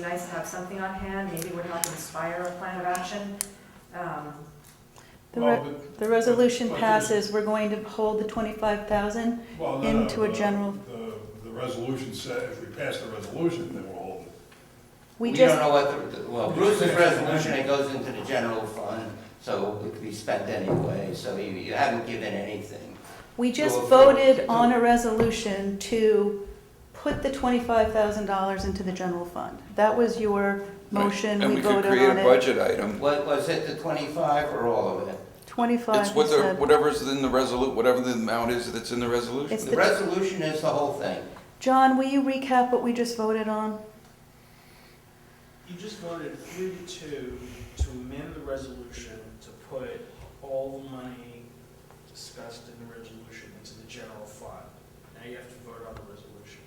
be nice to have something on hand, maybe would help inspire a plan of action. Um, The, Well, re- the resolution but- but there's- passes, we're going to hold the twenty-five thousand. the- well, no, no, into a the- general- The, the resolution said, if we pass the resolution, then we'll hold it. We We just, don't know what, the- well, Bruce's resolution, it goes into the general fund, so it could be spent anyway, so you, you haven't given anything. we just Well, voted no. on a resolution to put the twenty-five thousand dollars into the general fund. That was your motion, And we we could voted create a on it. budget item. What, was it the twenty-five or all of it? Twenty-five, It's you what the, said. whatever's in the resolu, whatever the amount is that's in the resolution. It's The resolution is the whole thing. John, will you recap what we just voted on? You just voted three to two to amend the resolution to put all the money discussed in the resolution into the general fund. Now you have to vote on the resolution.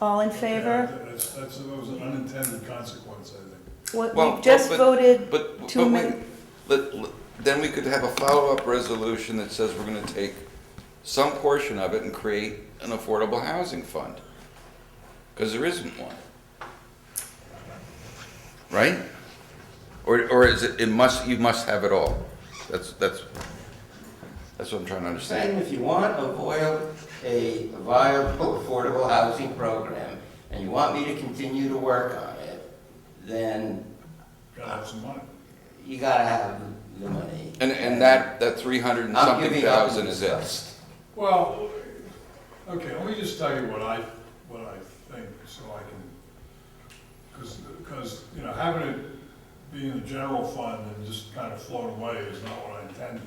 All in Yeah, favor? That's, that's, that was an unintended consequence, I think. What, Well, we just but- voted, But, To but wait, amend- let- let- then we could have a follow-up resolution that says we're gonna take some portion of it and create an affordable housing fund. Because there isn't one. Right? Or, or is it, it must, you must have it all? That's, that's, that's what I'm trying to understand. Saying if you want a viable, a viable affordable housing program, and you want me to continue to work on it, then Gotta have some money. you gotta have the money. And, and that, that three hundred and I'm something giving up thousand is it. Well, okay, let me just tell you what I, what I think, so I can, because, because, you know, having it be in the general fund and just kind of float away is not what I intended.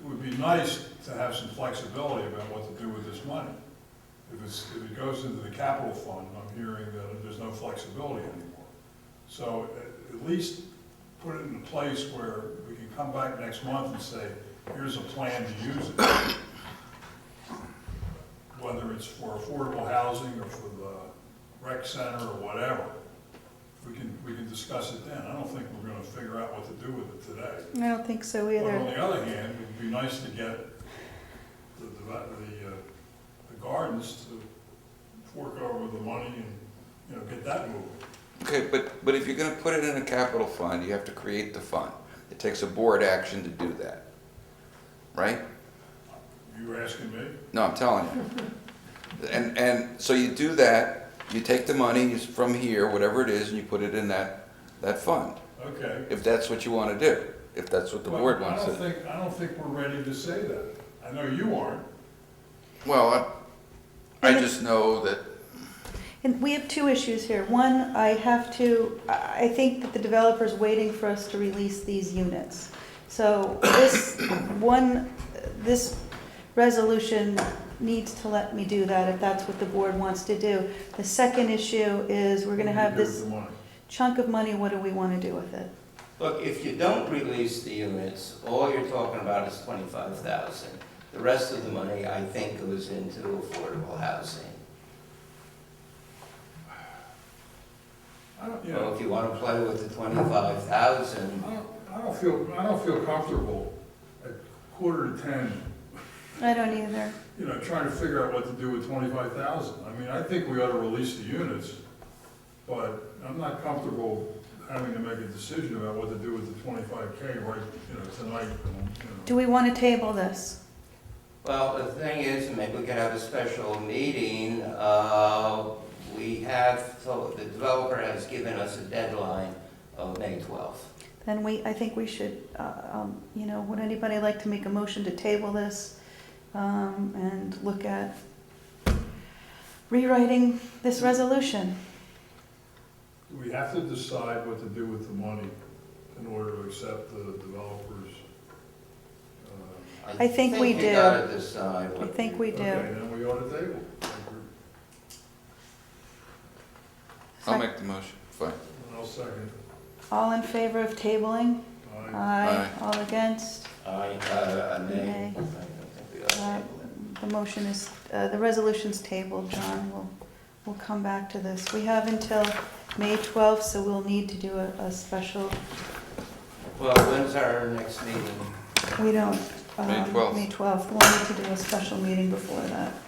It would be nice to have some flexibility about what to do with this money. If it's, if it goes into the capital fund, I'm hearing that there's no flexibility anymore. So at, at least put it in a place where we can come back next month and say, here's a plan to use it. Whether it's for affordable housing or for the rec center or whatever, we can, we can discuss it then. I don't think we're gonna figure out what to do with it today. I don't think so But on either. the other hand, it'd be nice to get the, the, the, uh, the gardens to fork over the money and, you know, get that moving. Okay, but, but if you're gonna put it in a capital fund, you have to create the fund. It takes a board action to do that, right? You were asking me? No, I'm telling you. And, and, so you do that, you take the money from here, whatever it is, and you put it in that, that fund, Okay. if that's what you wanna do, if that's what the board Well, wants I don't to. think, I don't think we're ready to say that. I know you aren't. Well, I, I just know that, And we have two issues here. One, I have to, I I think that the developer's waiting for us to release these units. So this one, this resolution needs to let me do that if that's what the board wants to do. The second issue is we're gonna have Here's this the money. chunk of money, what do we wanna do with it? Look, if you don't release the units, all you're talking about is twenty-five thousand. The rest of the money, I think, goes into affordable housing. I don't, you So know, if you want to play with the twenty-five thousand, I don't, I don't feel, I don't feel comfortable at quarter to ten, I don't either. you know, trying to figure out what to do with twenty-five thousand. I mean, I think we ought to release the units, but I'm not comfortable having to make a decision about what to do with the twenty-five K right, you know, tonight. you Do we wanna table this? well, the thing is, maybe we could have a special meeting. Uh, We have, so the developer has given us a deadline of May twelfth. Then we, I think we should, uh, um, you know, would anybody like to make a motion to table this um, and look at rewriting this resolution? know. We have to decide what to do with the money in order to accept the developers. uh, I think we you do. gotta decide I what think we Okay, do. then we ought to table. it. I'll make the motion, fine. And I'll second. it. All in favor of tabling? Aye. Aye. All against? I, uh, I may. Nay. I don't think we ought to Uh, table it. The motion is, uh, the resolution's tabled, John, we'll, we'll come back to this. We have until May 12th, so we'll need to do a, a special, Well, when's our next meeting? we don't. May um, 12th. May 12th, we'll need to do a special meeting before that.